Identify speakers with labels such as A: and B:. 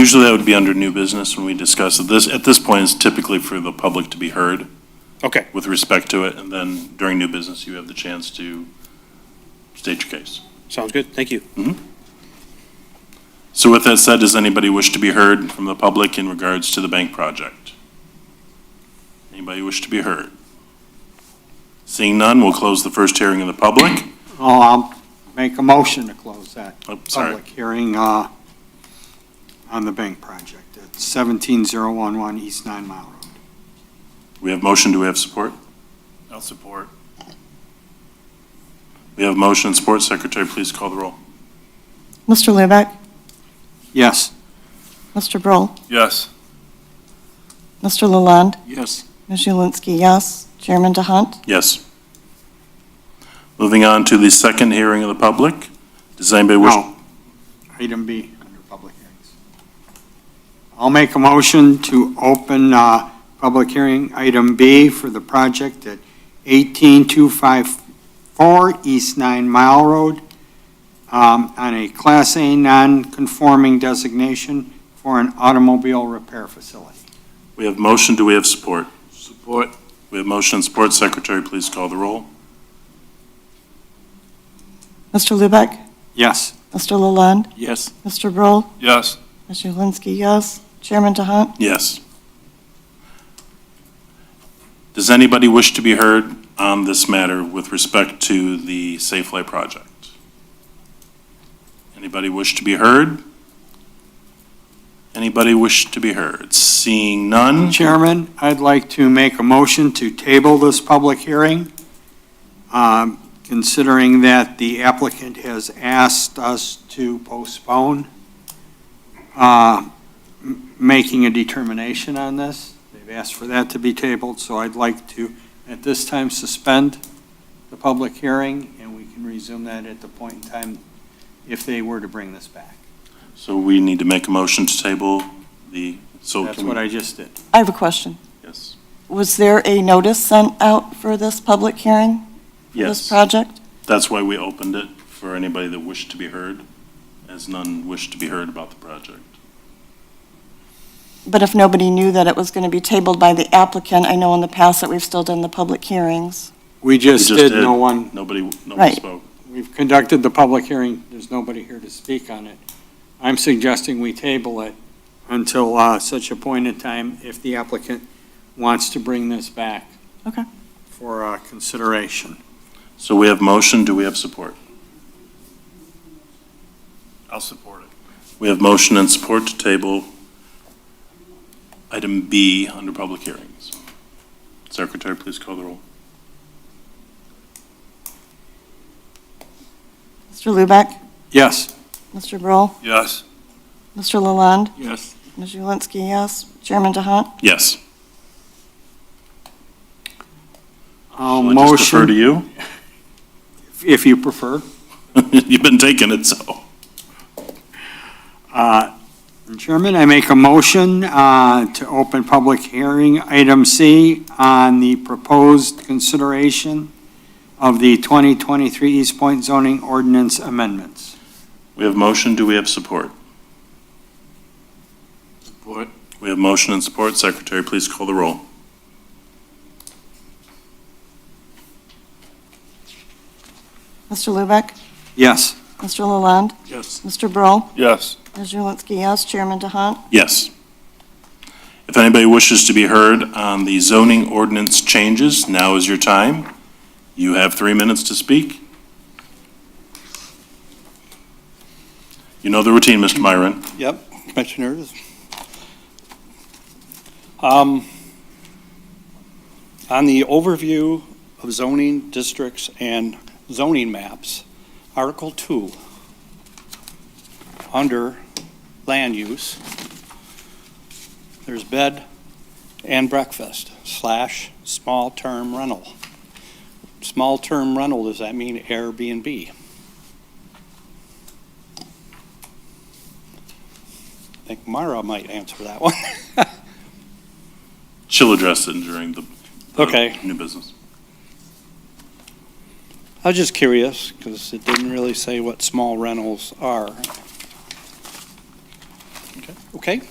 A: Usually that would be under new business when we discuss it. This, at this point, is typically for the public to be heard
B: Okay,
A: with respect to it, and then during new business, you have the chance to state your case.
B: sounds good, thank you.
A: So with that said, does anybody wish to be heard from the public in regards to the bank project? Anybody wish to be heard? Seeing none, we'll close the first hearing of the public.
C: Oh, I'll make a motion to close that
A: Oh, sorry.
C: public hearing uh, on the bank project at 17011 East Nine Mile Road.
A: We have motion, do we have support? I'll support. We have motion and support. Secretary, please call the roll.
D: Mr. Lubak,
C: Yes,
D: Mr. Broll,
A: Yes.
D: Mr. Lalonde,
A: Yes.
D: Ms. Julinski, yes. Chairman DeHunt,
A: Yes. Moving on to the second hearing of the public. Does anybody wish?
C: no. Item B, under public hearings. I'll make a motion to open uh, public hearing, item B, for the project at 18254 East Nine Mile Road um, on a Class A non-conforming designation for an automobile repair facility.
A: We have motion, do we have support? Support. We have motion and support. Secretary, please call the roll.
D: Mr. Lubak,
C: Yes.
D: Mr. Lalonde,
A: Yes.
D: Mr. Broll,
A: Yes.
D: Ms. Julinski, yes. Chairman DeHunt,
A: Yes. Does anybody wish to be heard on this matter with respect to the Safeway project? Anybody wish to be heard? Anybody wish to be heard? Seeing
C: Mm-hmm.
A: none?
C: Chairman, I'd like to make a motion to table this public hearing, um, considering that the applicant has asked us to postpone uh, m- making a determination on this. They've asked for that to be tabled, so I'd like to, at this time, suspend the public hearing, and we can resume that at the point in time if they were to bring this back.
A: So we need to make a motion to table the, so
C: That's
A: Oh, can
C: what
A: we?
C: I just did.
D: I have a question.
A: Yes.
D: Was there a notice sent out for this public hearing, for this
A: Yes,
D: project?
A: that's why we opened it for anybody that wished to be heard, as none wished to be heard about the project.
D: But if nobody knew that it was going to be tabled by the applicant, I know in the past that we've still done the public hearings.
C: We just
A: We just
C: did,
A: did.
C: no one
A: Nobody, nobody
D: Right.
A: spoke.
C: We've conducted the public hearing, there's nobody here to speak on it. I'm suggesting we table it until uh, such a point in time if the applicant wants to bring this back.
D: Okay.
C: For uh, consideration.
A: So we have motion, do we have support? I'll support it. We have motion and support to table item B under public hearings. Secretary, please call the roll.
D: Mr. Lubak,
C: Yes.
D: Mr. Broll,
A: Yes.
D: Mr. Lalonde,
A: Yes.
D: Ms. Julinski, yes. Chairman DeHunt,
A: Yes.
C: I'll
A: I'll just defer to
C: motion,
A: you.
C: if you prefer.
A: You've been taking it, so.
C: Uh, Chairman, I make a motion uh, to open public hearing, item C, on the proposed consideration of the 2023 East Point zoning ordinance amendments.
A: We have motion, do we have support? Support. We have motion and support. Secretary, please call the roll.
D: Mr. Lubak,
C: Yes.
D: Mr. Lalonde,
A: Yes.
D: Mr. Broll,
A: Yes.
D: Ms. Julinski, yes. Chairman DeHunt?
A: Yes. If anybody wishes to be heard on the zoning ordinance changes, now is your time. You have three minutes to speak. You know the routine, Mr. Myron.
E: Yep, commissioners. Um, On the overview of zoning districts and zoning maps, Article 2, under land use, there's bed and breakfast slash small-term rental. Small-term rental, does that mean Airbnb? I think Mara might answer that one.
A: She'll address it during the the
E: Okay.
A: new business.
E: I was just curious, because it didn't really say what small rentals are. Okay,